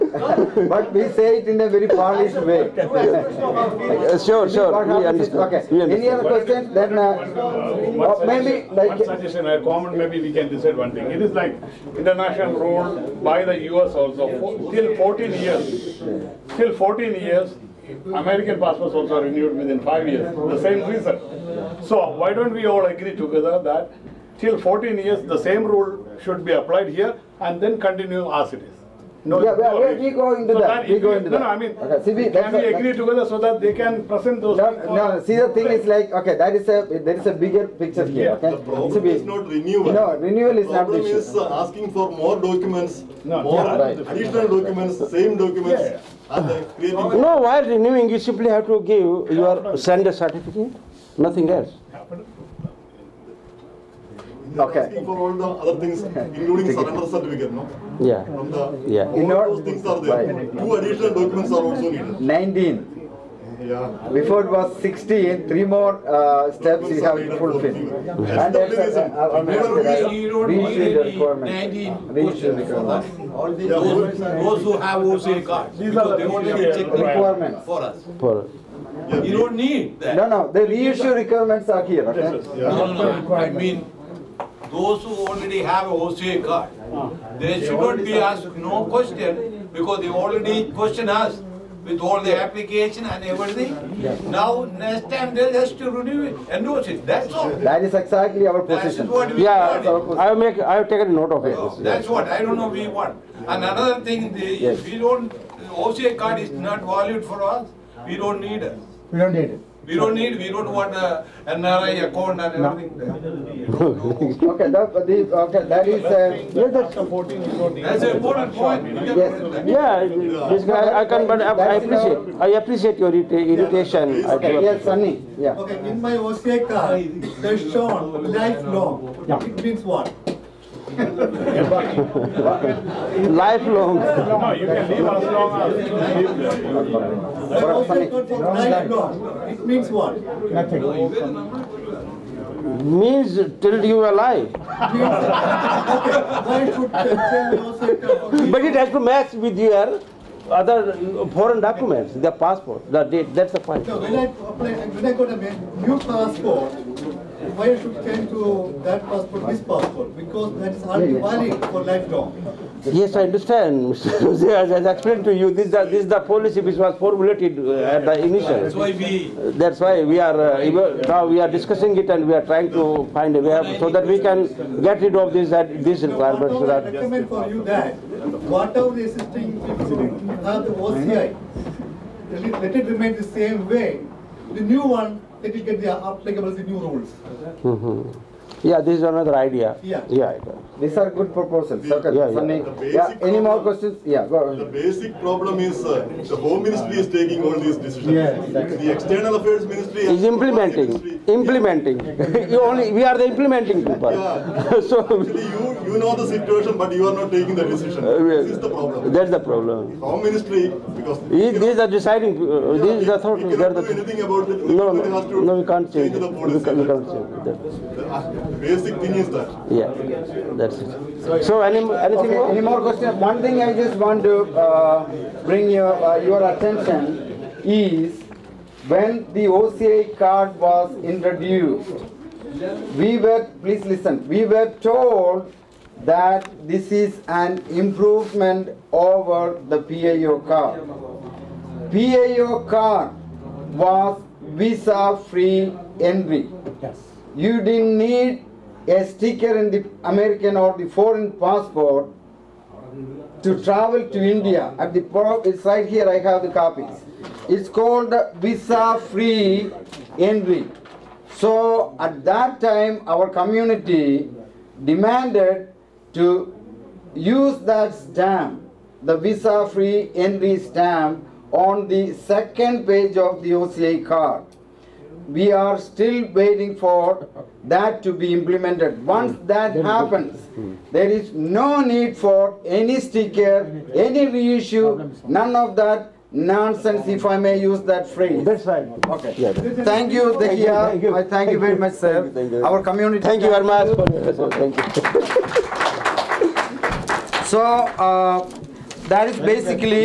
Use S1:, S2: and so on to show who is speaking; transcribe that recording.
S1: But we say it in a very polished way.
S2: Uh, Sure, sure, we
S1: Okay.
S2: understand. We
S1: Any
S2: understand.
S1: other question? Then uh,
S3: One
S1: uh, maybe
S3: suggestion-
S1: like
S3: one suggestion, a comment, maybe we can decide one thing. It is like international rule by the US also, Fo- till fourteen years, till fourteen years, American passports also renewed within five years, the same reason. So why don't we all agree together that till fourteen years, the same rule should be applied here and then continue as it is? No-
S1: Yeah, we- we- we go into
S3: So
S1: that, we
S3: if
S1: go
S3: we-
S1: into
S3: no,
S1: that.
S3: No, I mean,
S1: Okay, see, we-
S3: can
S1: that's
S3: we
S1: a-
S3: agree together so that they can present those?
S1: No,
S3: things for
S1: no,
S3: the
S1: see, the thing is
S3: public?
S1: like, okay, that is a, there is a bigger picture here, okay?
S4: The
S1: See,
S4: problem
S1: we-
S4: is not renewal.
S1: No, renewal is not the
S4: Problem
S1: issue.
S4: is uh, asking for more documents,
S3: No,
S4: more
S3: yeah,
S1: right.
S4: additional documents, same documents,
S3: Yeah,
S4: and then creating.
S2: No, while renewing, you simply have to give your send a certificate, nothing else.
S4: They're
S1: Okay.
S4: Asking for all the other things, including surrender certificate, no?
S2: Yeah,
S4: From the,
S2: Yeah.
S4: all
S1: In order-
S4: those things are there.
S1: Right.
S4: Two additional documents are also needed.
S1: Nineteen,
S4: Yeah.
S1: before it was sixteen, three more uh, steps you have to fulfill. And that's uh, a- a- a- a-
S5: You don't need
S1: reach the
S5: any
S1: requirement.
S5: nineteen
S1: Reach the
S5: questions for us.
S1: requirement.
S5: All these, those those who have OCA cards,
S3: These are the
S5: because they already
S3: requirements.
S5: checked
S1: Requirements.
S5: it for us.
S2: for,
S4: Yeah.
S5: You don't need that.
S1: No, no, the reissue requirements are here, okay?
S5: No, no, no, I mean, those who already have a OCA card, they shouldn't be asked no question, because they already question us with all the application and everything. Now, next time, they'll just to renew it, endorse it, that's all.
S1: That is exactly our
S5: That's
S1: position.
S5: what we
S2: yeah,
S5: want.
S2: I'll make, I'll take a note of
S5: No,
S2: it.
S5: Oh, That's what, I don't know, we want. And another thing, the, if we don't, OCA card is not valued for us, we don't need it.
S6: We don't need it.
S5: We don't need, we don't want a NRI account and everything there.
S1: Okay, that, but the, okay, that is, uh,
S2: Yeah, that's,
S5: That's an important point. We can
S1: Yes.
S5: put it there.
S2: yeah, this guy, I can, but I I appreciate, I appreciate your irrita- irritation. I
S1: okay,
S2: do
S1: yes, Sunny, yeah.
S7: Okay, in my OCA card, there's shown lifelong. It means what?
S2: Lifelong,
S3: No, you can leave as long as you live there.
S7: My OCA card for lifelong. It means what? It means
S2: means till you are alive.
S7: Okay, why should cancel OCA card? for-
S2: But it has to match with your other foreign documents, the passport, the date, that's the point.
S7: So when I apply, when I got a ma- new passport, why should change to that passport, this passport? Because that is already valid for lifelong.
S2: Yes, I understand, Mr. Jose, as I explained to you, this is the, this is the policy which was formulated uh, at the
S5: That's
S2: initial.
S5: why we,
S2: That's why we are, uh, even- now we are discussing it and we are trying to find a way out so that we can get rid of this, that, this
S7: Now, what
S2: requirement so
S7: I
S2: that.
S7: recommend for you that, whatever the existing people have the OCI, let it- let it remain the same way. The new one, let it get the applicable, the new rules.
S2: Yeah, this is another idea.
S7: Yeah.
S2: Yeah.
S1: These are good proposals, okay,
S2: Yeah, yeah.
S1: Sunny.
S4: The basic
S1: Yeah, any more
S4: problem-
S1: questions? Yeah, go
S4: The
S1: on.
S4: basic problem is uh, the Home Ministry is taking all these decisions.
S6: Yes,
S4: The External Affairs Ministry. and
S2: Is implementing,
S4: Ministry-
S2: implementing. You only, we are the implementing people. So,
S4: Actually, you, you know the situation, but you are not taking the decision.
S2: Uh, yeah.
S4: This is the problem.
S2: that's the problem.
S4: Home Ministry, because.
S2: These, these are deciding, uh,
S4: Yeah,
S2: these are the thought,
S4: We
S2: they are
S4: cannot
S2: the.
S4: do anything about it.
S2: No,
S4: Everything has
S2: no,
S4: to
S2: no, we can't change it.
S4: the
S2: We
S4: policy.
S2: can't, we can't change it. That-
S4: The uh, basic thing is that.
S2: Yeah, that's it. So any, anything
S1: Okay, any
S2: more?
S1: more questions? One thing I just want to uh, bring your, uh, your attention is when the OCA card was introduced, we were, please listen, we were told that this is an improvement over the PAO card. PAO card was visa-free entry. You didn't need a sticker in the American or the foreign passport to travel to India. At the pro- it's right here. I have the copies. It's called visa-free entry. So at that time, our community demanded to use that stamp, the visa-free entry stamp, on the second page of the OCA card we are still waiting for that to be implemented. Once
S2: Hmm.
S1: that happens, there is no need for any sticker, any reissue, none of that nonsense, if I may use that phrase.
S2: That's right.
S1: Okay.
S2: Yeah.
S1: Thank you,
S2: Thank you.
S1: Dekia. I thank you very much, sir.
S2: Thank you, thank you.
S1: Our community.
S2: Thank you very much for your presence. Thank you.
S1: So, uh, that is basically